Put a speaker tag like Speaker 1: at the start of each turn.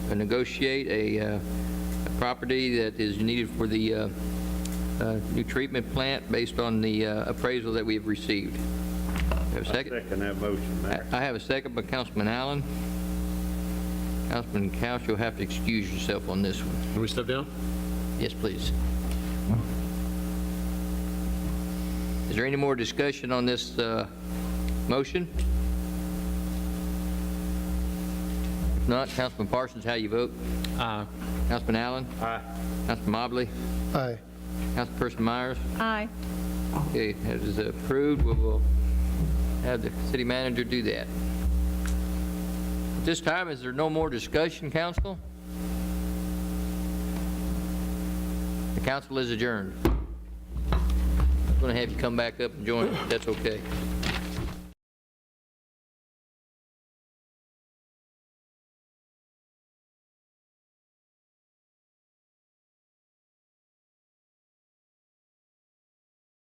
Speaker 1: negotiate a uh, a property that is needed for the uh, uh, new treatment plant based on the uh, appraisal that we have received. Have a second?
Speaker 2: Second that motion,
Speaker 1: I
Speaker 2: Mayor.
Speaker 1: I have a second by Councilman Allen. Councilman Couch, you'll have to excuse yourself on this one.
Speaker 3: Can we step down?
Speaker 1: Yes, please. Is there any more discussion on this uh, motion? If not, Councilman Parsons, how you vote?
Speaker 3: Aye.
Speaker 1: Councilman Allen?
Speaker 2: Aye.
Speaker 1: Councilman Mobley?
Speaker 4: Aye.
Speaker 1: Councilperson Myers?
Speaker 5: Aye.
Speaker 1: Okay, that is approved. We will have the city manager do that. At this time, is there no more discussion, council? The council is adjourned. I'm going to have you come back up and join, if that's okay.